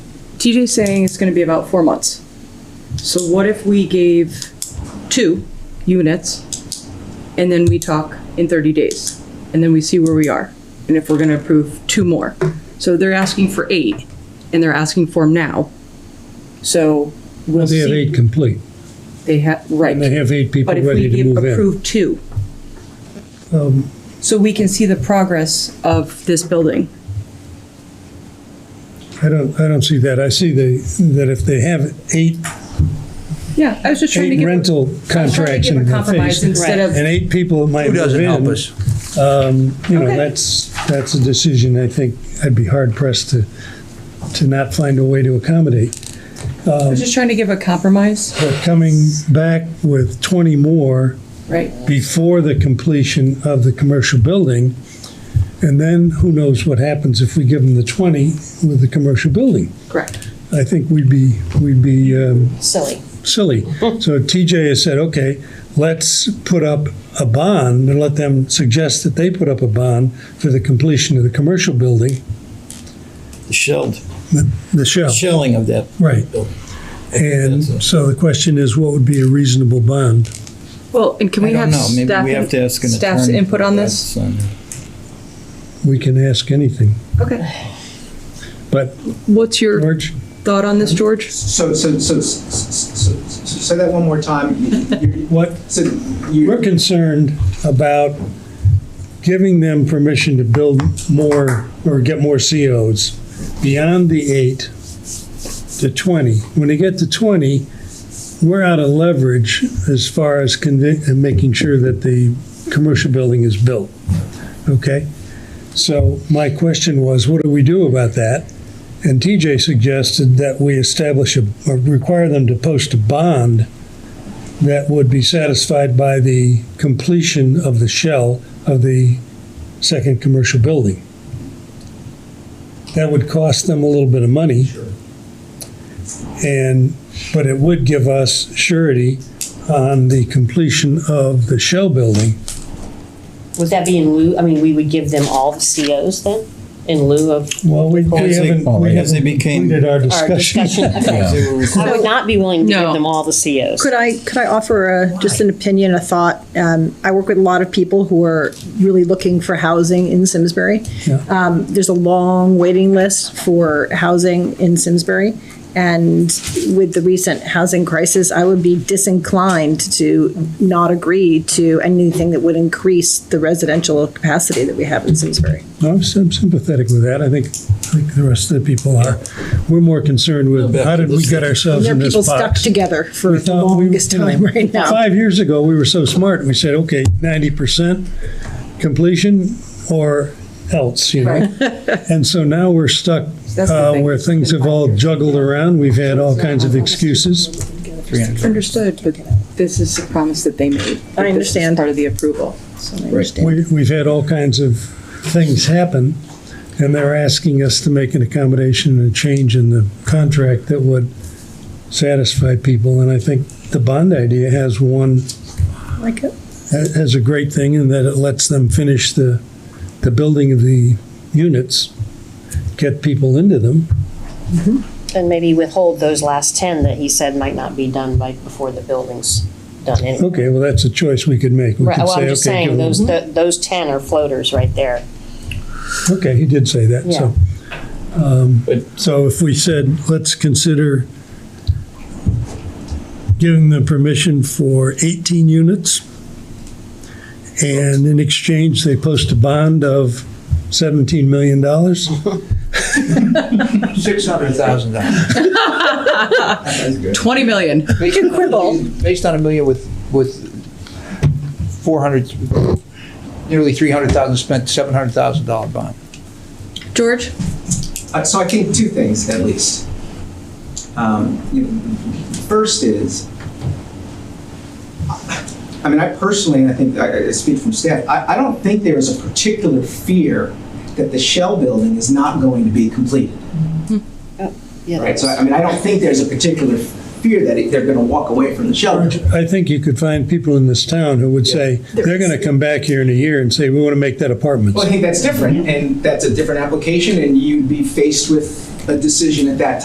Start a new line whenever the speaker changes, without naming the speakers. TJ's saying it's gonna be about four months. So what if we gave two units, and then we talk in thirty days, and then we see where we are, and if we're gonna approve two more? So they're asking for eight, and they're asking for 'em now. So we'll
They have
see.
eight complete,
They have, right.
and they have eight people
But if we
ready to
give-
move in. Um,
approve two. So we can see the progress of this building.
I don't, I don't see that. I see the, that if they have eight,
Yeah, I was just trying to
eight
give. a-
rental
I was trying to
contracts
give a
in the
Compromise
face,
instead of,
and eight people that might
Who
move in. um,
doesn't help us?
You know,
Okay.
that's, that's a decision I think I'd be hard pressed to, to not find a way to accommodate.
I was just trying to give a compromise,
But coming back with twenty more
right?
before the completion of the commercial building, and then who knows what happens if we give them the twenty with the commercial building.
Correct.
I think we'd be, we'd be um,
silly.
silly. So TJ has said, okay, let's put up a bond and let them suggest that they put up a bond for the completion of the commercial building,
The shelled,
the shell.
shelling of that.
Right.
building.
Oh. And
That's a-
so the question is, what would be a reasonable bond?
Well, and can
I
we
don't
have
know, maybe
staff,
we have to ask an attorney.
staff's input on this?
That's, um,
We can ask anything.
Okay.
But
What's your
George,
thought on this, George?
So, so, so, s- s- s- s- say that one more time. You- you-
what,
So you,
we're concerned about giving them permission to build more or get more COs beyond the eight to 20. When they get to 20, we're out of leverage as far as convi- and making sure that the commercial building is built. Okay? So my question was, what do we do about that? And TJ suggested that we establish a, or require them to post a bond that would be satisfied by the completion of the shell of the second commercial building. That would cost them a little bit of money. And, but it would give us surety on the completion of the shell building.
Would that be in lieu, I mean, we would give them all the COs then, in lieu of
Well, we we
As they-
haven't, we
as they
haven't
became-
completed our
our
discussion.
discussion?
as
Okay.
they were required.
I would not be willing to
No.
give them all the COs.
Could I, could I offer a, just an opinion, a thought? Um, I work with a lot of people who are really looking for housing in Simsbury. Um, there's a long waiting list for housing in Simsbury. And with the recent housing crisis, I would be disinclined to not agree to anything that would increase the residential capacity that we have in Simsbury.
No, I'm sym- sympathetic with that. I think, I think the rest of the people are. We're more concerned with how did we get ourselves
There are
in this
people stuck
box?
together for
We
the
thought we-
longest
you know,
time right now.
Five years ago, we were so smart, we said, okay, ninety percent completion or else, you know? And so now we're stuck
That's the
uh,
thing.
where things have all juggled around, we've had all kinds of excuses.
Understood, but this is a promise that they made.
I understand.
Part of the approval. So
I understand.
We- We've had all kinds of things happen, and they're asking us to make an accommodation and a change in the contract that would satisfy people, and I think the bond idea has one
Like it?
ha- has a great thing in that it lets them finish the, the building of the units, get people into them.
And maybe withhold those last ten that he said might not be done by, before the building's done anyway.
Okay, well, that's a choice we could make. We
Right,
could
well,
say,
I'm just
okay,
saying,
give them-
those, th- those ten are floaters right there.
Okay, he did say that, so. um,
But-
So if we said, let's consider giving them permission for 18 units, and in exchange, they post a bond of $17 million?
$600,000. That's good.
Twenty million.
We can quibble. Based on a million with, with 400, nearly 300,000 spent, $700,000 bond.
George?
uh, so I think two things at least. Um, you know, First is, I mean, I personally, and I think I I speak from staff, I, I don't think there is a particular fear that the shell building is not going to be completed. Right, so I I mean, I don't think there's a particular fear that it- they're gonna walk away from the shell. building.
I think you could find people in this town who would say, they're going to come back here in a year and say, we want to make that apartment.
Well, I think that's different, and that's a different application, and you'd be faced with a decision at that